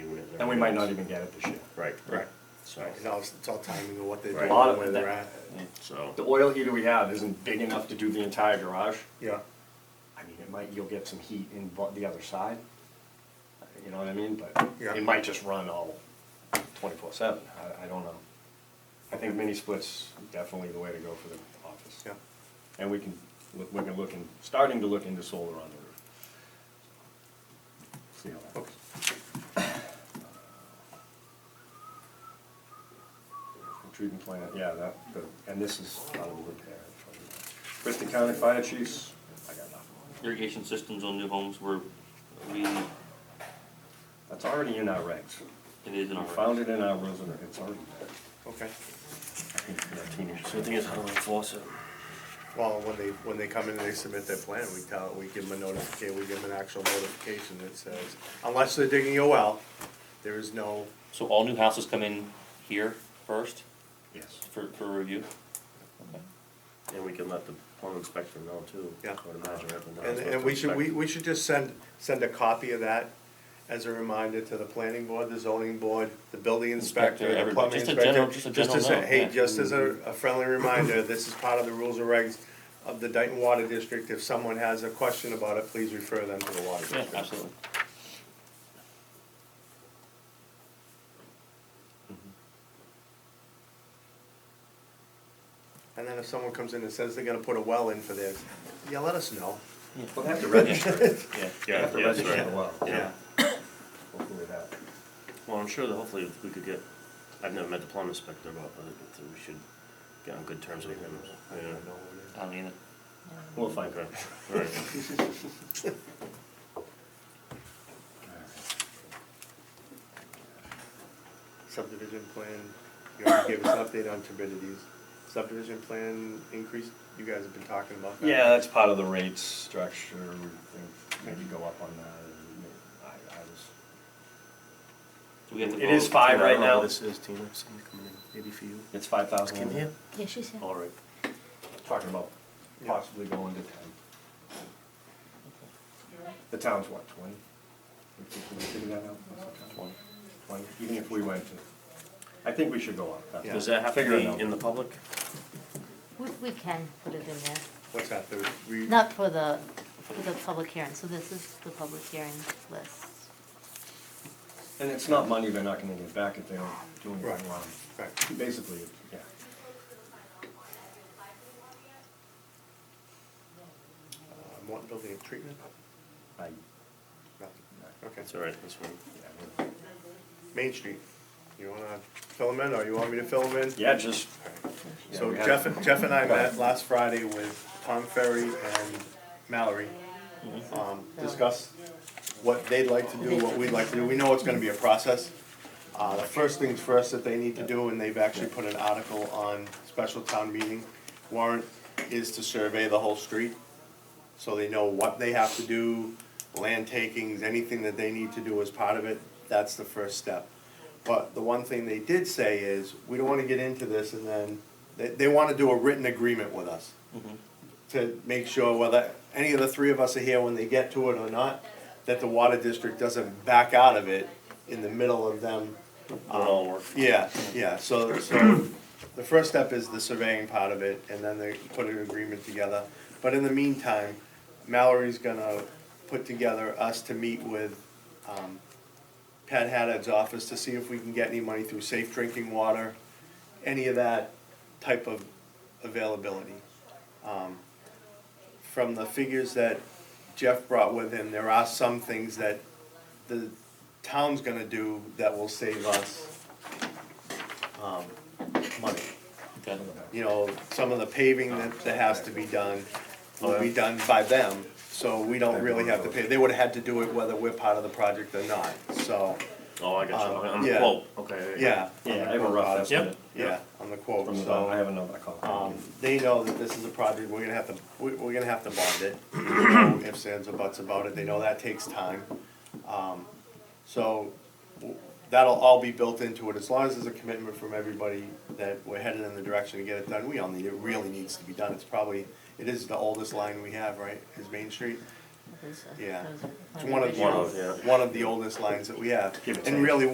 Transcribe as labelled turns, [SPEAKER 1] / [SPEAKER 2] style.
[SPEAKER 1] and we might not even get it this year.
[SPEAKER 2] Right, right, so,
[SPEAKER 3] It's all, it's all timing of what they're
[SPEAKER 2] Right.
[SPEAKER 3] doing,
[SPEAKER 2] A
[SPEAKER 1] lot of
[SPEAKER 3] where they're at,
[SPEAKER 2] so,
[SPEAKER 1] The oil heater we have isn't big enough to do the entire garage.
[SPEAKER 3] yeah.
[SPEAKER 1] I mean, it might, you'll get some heat in bu- the other side, you know what I mean, but
[SPEAKER 3] Yeah.
[SPEAKER 1] it might just run all twenty-four seven, I, I don't know. I think mini splits definitely the way to go for the office.
[SPEAKER 3] Yeah.
[SPEAKER 1] And we can, look- we can look in, starting to look into solar on the roof. See how that goes. Treatment plant, yeah, that, the- and this is out of the wood there. Bristol County Fire Chiefs, I got nothing.
[SPEAKER 2] irrigation systems on new homes were, we, it
[SPEAKER 1] That's already in our regs.
[SPEAKER 2] is in
[SPEAKER 1] We
[SPEAKER 2] our.
[SPEAKER 1] found it in our rules and it's already there.
[SPEAKER 3] Okay,
[SPEAKER 1] I think for that teenage-
[SPEAKER 4] So the thing is, how do we enforce it?
[SPEAKER 3] well, when they, when they come in and they submit their plan, we tell, we give them a notification, we give them an actual notification that says, unless they're digging a well, there is no,
[SPEAKER 2] So all new houses come in here first
[SPEAKER 1] Yes.
[SPEAKER 2] for, for review? Okay.
[SPEAKER 4] And we can let the home inspector know too.
[SPEAKER 3] Yeah.
[SPEAKER 4] I would imagine everyone knows
[SPEAKER 3] and,
[SPEAKER 4] what
[SPEAKER 3] and
[SPEAKER 4] to
[SPEAKER 3] we should, we,
[SPEAKER 4] expect.
[SPEAKER 3] we should just send, send a copy of that as a reminder to the planning board, the zoning board, the building
[SPEAKER 2] Inspector,
[SPEAKER 3] inspector, the
[SPEAKER 2] everybody.
[SPEAKER 3] plumbing
[SPEAKER 2] Just a
[SPEAKER 3] inspector.
[SPEAKER 2] general- just a general
[SPEAKER 3] as a-
[SPEAKER 2] note, Mm-hmm.
[SPEAKER 3] Hey,
[SPEAKER 2] yeah.
[SPEAKER 3] just as a, a friendly reminder, this is part of the rules and regs of the Dayton Water District, if someone has a question about it, please refer them to the water
[SPEAKER 2] Yeah,
[SPEAKER 3] district.
[SPEAKER 2] absolutely.
[SPEAKER 3] And then if someone comes in and says they're gonna put a well in for this, yeah, let us know.
[SPEAKER 1] We'll have to register it.
[SPEAKER 2] Yeah.
[SPEAKER 4] Yeah,
[SPEAKER 1] We'll have to
[SPEAKER 4] yeah, that's
[SPEAKER 1] register
[SPEAKER 4] right.
[SPEAKER 1] it well.
[SPEAKER 4] Yeah.
[SPEAKER 1] Hopefully that.
[SPEAKER 4] Well, I'm sure that hopefully if we could get, I've never met the plumbing inspector, but I think that we should get on good terms with him. Yeah.
[SPEAKER 2] I don't either.
[SPEAKER 1] We'll find
[SPEAKER 4] Okay,
[SPEAKER 1] out.
[SPEAKER 4] right.
[SPEAKER 3] Subdivision plan, you already gave us an update on turbidities. Subdivision plan increase, you guys have been talking about that.
[SPEAKER 1] Yeah, that's part of the rate structure. We think maybe go up on that. I, I was.
[SPEAKER 2] Do we have to
[SPEAKER 1] It is
[SPEAKER 2] vote?
[SPEAKER 1] five right
[SPEAKER 4] I don't know
[SPEAKER 1] now.
[SPEAKER 4] who This is Tina, someone coming in, maybe for you.
[SPEAKER 1] It's five thousand.
[SPEAKER 4] Can you?
[SPEAKER 5] Yeah, she's here.
[SPEAKER 4] All right.
[SPEAKER 1] Talking about possibly going to ten. The town's what, twenty? We think we figure that out? What's the town?
[SPEAKER 2] Twenty.
[SPEAKER 1] Twenty, even if we went to, I think we should go up. That's-
[SPEAKER 3] Yeah.
[SPEAKER 4] Does that have to
[SPEAKER 1] Figure it out.
[SPEAKER 4] be in the public?
[SPEAKER 5] We, we can put it in there,
[SPEAKER 3] What's that, the re?
[SPEAKER 5] not for the, for the public hearing, so this is the public hearing list.
[SPEAKER 1] And it's not money they're not gonna get back if they don't do
[SPEAKER 3] Right.
[SPEAKER 1] anything wrong.
[SPEAKER 3] Right,
[SPEAKER 1] Basically, yeah.
[SPEAKER 3] uh, Morton Building of Treatment?
[SPEAKER 1] I,
[SPEAKER 3] No. Okay,
[SPEAKER 4] That's all right, that's fine.
[SPEAKER 1] yeah, I mean-
[SPEAKER 3] Main Street, you wanna fill them in, or you want me to fill them in?
[SPEAKER 1] yeah, just. yeah,
[SPEAKER 3] So
[SPEAKER 1] we had-
[SPEAKER 3] Jeff, Jeff and I met last Friday with Tom Ferry and Mallory. Um, discuss what they'd like to do, what we'd like to do. We know it's gonna be a process. Uh, the first things first that they need to do, and they've actually put an article on special town meeting warrant, is to survey the whole street. So they know what they have to do, land takings, anything that they need to do as part of it, that's the first step. But the one thing they did say is, we don't wanna get into this and then, they, they wanna do a written agreement with us. To make sure whether any of the three of us are here when they get to it or not, that the water district doesn't back out of it in the middle of them.
[SPEAKER 4] We'll all work.
[SPEAKER 3] Yeah, yeah, so, so the first step is the surveying part of it, and then they put an agreement together. But in the meantime, Mallory's gonna put together us to meet with, um, Pat Haddad's office to see if we can get any money through safe drinking water, any of that type of availability. Um, From the figures that Jeff brought with him, there are some things that the town's gonna do that will save us um, money.
[SPEAKER 2] Okay.
[SPEAKER 3] You know, some of the paving that, that has to be done will be done by them, so we don't really have to pay. They would've had to do it whether we're part of the project or not, so,
[SPEAKER 4] Oh, I got you,
[SPEAKER 3] Um,
[SPEAKER 4] on the
[SPEAKER 3] yeah.
[SPEAKER 4] quote, okay.
[SPEAKER 3] yeah.
[SPEAKER 1] Yeah, I have a rough estimate.
[SPEAKER 3] Yeah, on the quote,
[SPEAKER 1] From the,
[SPEAKER 3] so.
[SPEAKER 1] I have another call.
[SPEAKER 3] Um, they know that this is a project, we're gonna have to, we, we're gonna have to bond it, There's no ifs, ands, or buts about it, they know that takes time. Um, so, w- that'll all be built into it, as long as there's a commitment from everybody that we're headed in the direction to get it done, we all need, it really needs to be done, it's probably, it is the oldest line we have, right, is Main Street?
[SPEAKER 5] Those are-
[SPEAKER 3] Yeah.
[SPEAKER 5] those are
[SPEAKER 3] It's one of,
[SPEAKER 4] One of, yeah.
[SPEAKER 3] one of the oldest lines that we have,
[SPEAKER 1] Give or take.
[SPEAKER 3] and really,